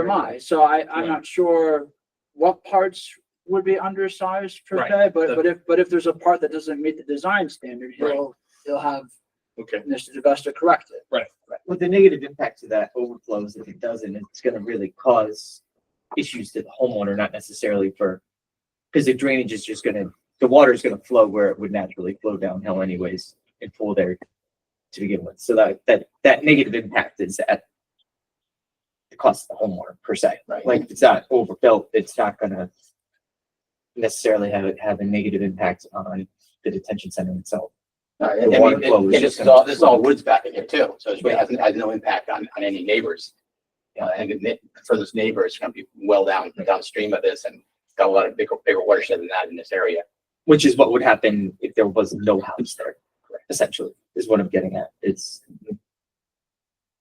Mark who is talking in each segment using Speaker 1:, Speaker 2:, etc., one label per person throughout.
Speaker 1: am I, so I, I'm not sure what parts would be undersized per
Speaker 2: Right.
Speaker 1: se, but,
Speaker 2: The-
Speaker 1: but if, but if there's a part that doesn't meet the design standard,
Speaker 2: Right.
Speaker 1: he'll, he'll have
Speaker 2: Okay,
Speaker 1: Mr. DeVesta correct it.
Speaker 3: With the negative impact to that overflows, if it doesn't, it's gonna really cause issues to the homeowner, not necessarily for. Cause the drainage is just gonna, the water is gonna flow where it would naturally flow downhill anyways and pool there to begin with. So that, that, that negative impact is at the cost of the homeowner per se, right? Like if it's not overbuilt, it's not gonna necessarily have it have a negative impact on the detention center itself.
Speaker 4: Uh,
Speaker 3: The
Speaker 4: And I
Speaker 3: water
Speaker 4: mean,
Speaker 3: flow
Speaker 4: and-
Speaker 3: is
Speaker 4: and
Speaker 3: just
Speaker 4: this is
Speaker 3: gonna
Speaker 4: all, this is all
Speaker 3: flow.
Speaker 4: woods back in here too, so it
Speaker 3: Yeah.
Speaker 4: has, has no impact on, on any neighbors. Uh, and the ne- for this neighbor, it's gonna be well down, downstream of this and it's got a lot of bigger, bigger watershed than that in this area.
Speaker 3: Which is what would happen if there was no house there, essentially, is what I'm getting at. It's,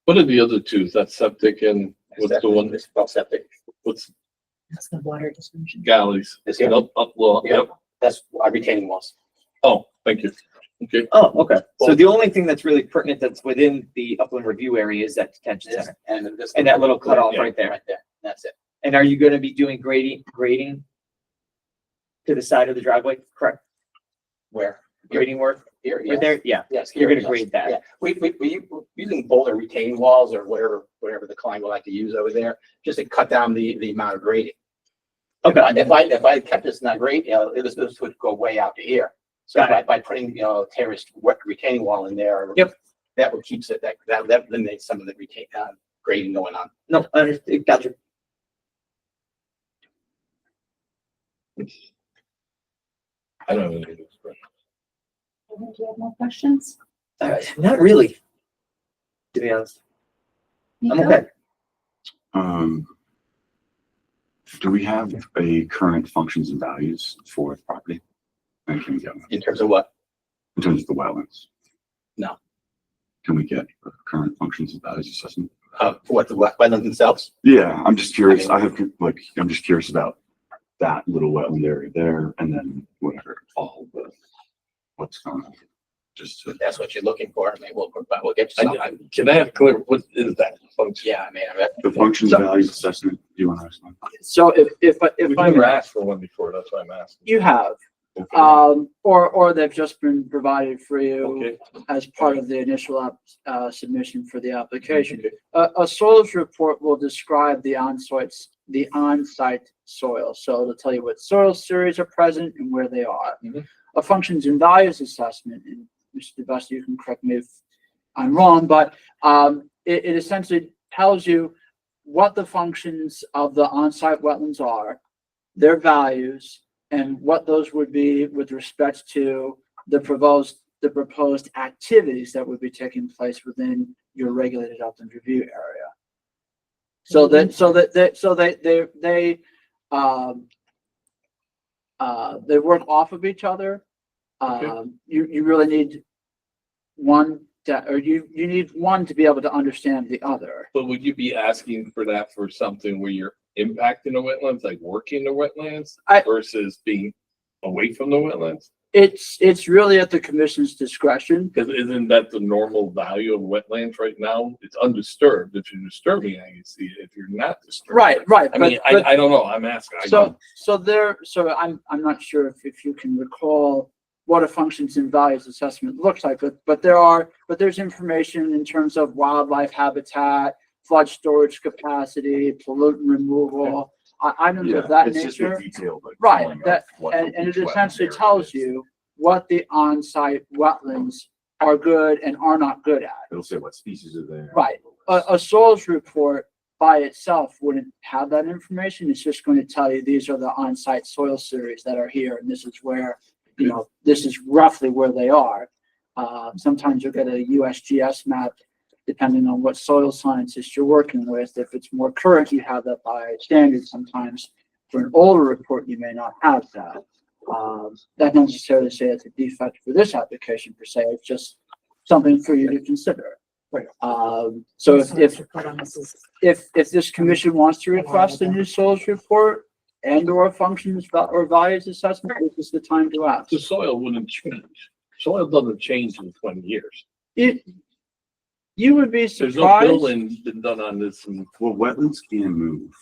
Speaker 5: What are the other two? Is that septic and what's the one,
Speaker 4: This well septic.
Speaker 5: what's
Speaker 6: That's the water distribution.
Speaker 5: galleys?
Speaker 4: This here.
Speaker 5: Up, up, well, yep.
Speaker 4: That's our retaining walls.
Speaker 5: Oh, thank you. Okay,
Speaker 3: oh, okay. So
Speaker 4: Well-
Speaker 3: the only thing that's really pertinent that's within the upland review area is that detention
Speaker 4: This
Speaker 3: center.
Speaker 4: and this.
Speaker 3: And that little cutoff
Speaker 5: Yeah.
Speaker 3: right there.
Speaker 4: Right there, that's it.
Speaker 3: And are you gonna be doing grading, grading to the side of the driveway, correct?
Speaker 4: Where?
Speaker 3: Grading work,
Speaker 4: Here,
Speaker 3: right
Speaker 4: yes,
Speaker 3: there? Yeah,
Speaker 4: yes.
Speaker 3: you're
Speaker 4: here,
Speaker 3: gonna
Speaker 4: yes,
Speaker 3: grade that.
Speaker 4: yeah. We, we, we, we're using boulder retaining walls or whatever, whatever the client would like to use over there, just to cut down the, the amount of grading. If I,
Speaker 3: okay.
Speaker 4: if I, if I kept this not great, you know, this, this would go way out to here. So
Speaker 3: Got
Speaker 4: by, by putting, you know, terraced wet retaining wall in there.
Speaker 3: Yep.
Speaker 4: That would keeps it, that, that that eliminates some of the retain, uh, grading going on.
Speaker 3: No, I understand, gotcha.
Speaker 5: I don't have any.
Speaker 6: Do you have more questions?
Speaker 3: Uh, Not really. To be honest, I'm
Speaker 6: Nico?
Speaker 3: okay.
Speaker 7: Um, do we have a current functions and values for the property? And can we get, one?
Speaker 4: In terms of what?
Speaker 7: in terms of the wetlands?
Speaker 4: No.
Speaker 7: Can we get a current functions and values assessment?
Speaker 4: Uh, what, the wet- wetlands themselves?
Speaker 7: Yeah, I'm just curious. I have, like, I'm just curious about that little wetland area there and then whatever, all the, what's going on. Just to
Speaker 4: If that's what you're looking for, I mean, we'll, but we'll get you
Speaker 5: I,
Speaker 4: something.
Speaker 5: I- can I have clear, what is that function?
Speaker 4: Yeah, I mean, I mean,
Speaker 7: The functions and values assessment, do you want to explain?
Speaker 1: So if, if, I-
Speaker 5: We've
Speaker 1: if
Speaker 5: never
Speaker 1: I,
Speaker 5: asked for one before, that's why I'm asking.
Speaker 1: you have,
Speaker 5: Okay.
Speaker 1: um, or, or they've just been provided for you
Speaker 5: Okay,
Speaker 1: as part of the initial, app- uh, submission for the application.
Speaker 5: okay.
Speaker 1: A, a soils report will describe the onsites, the on-site soil. So it'll tell you what soil series are present and where they are.
Speaker 5: Mhm.
Speaker 1: A functions and values assessment, and Mr. DeVesta, you can correct me if I'm wrong, but um, it, it essentially tells you what the functions of the on-site wetlands are, their values, and what those would be with respect to the proposed, the proposed activities that would be taking place within your regulated upland review area. So that, so that, that, so they, they, they, um, uh, they work off of each other.
Speaker 5: Okay.
Speaker 1: Um, you, you really need one, to- or you, you need one to be able to understand the other.
Speaker 5: But would you be asking for that for something where you're impacting the wetlands, like working the wetlands
Speaker 1: I-
Speaker 5: versus being away from the wetlands?
Speaker 1: It's, it's really at the commission's discretion.
Speaker 5: Cause isn't that the normal value of wetlands right now? It's undisturbed. If you're disturbing, I can see it. If you're not disturbing.
Speaker 1: Right, right.
Speaker 5: I mean,
Speaker 1: but-
Speaker 5: I,
Speaker 1: but-
Speaker 5: I don't know. I'm asking. I
Speaker 1: So, so there, so I'm, I'm not sure if, if you can recall what a functions and values assessment looks like, but, but there are, but there's information in terms of wildlife habitat, flood storage capacity, pollutant removal, i- items of that nature. Right, that, and, and it essentially tells you what the on-site wetlands are good and are not good at.
Speaker 7: It'll say what species are there.
Speaker 1: Right. Uh, a, a soils report by itself wouldn't have that information. It's just going to tell you, these are the on-site soil series that are here, and this is where, you know, this is roughly where they are. Uh, sometimes you'll get a USGS map, depending on what soil scientist you're working with. If it's more current, you have that by standard. Sometimes for an older report, you may not have that. Um, that doesn't necessarily say it's a defect for this application per se, it's just something for you to consider.
Speaker 6: Right.
Speaker 1: Um, so if, if,
Speaker 6: Put on this is-
Speaker 1: if, if this commission wants to request a new soils report and or functions va- or values assessment, this is the time to ask.
Speaker 5: The soil wouldn't change. Soil doesn't change in twenty years.
Speaker 1: It, You would be
Speaker 5: There's no
Speaker 1: surprised.
Speaker 5: building been done on this in
Speaker 7: Well, wetlands can move.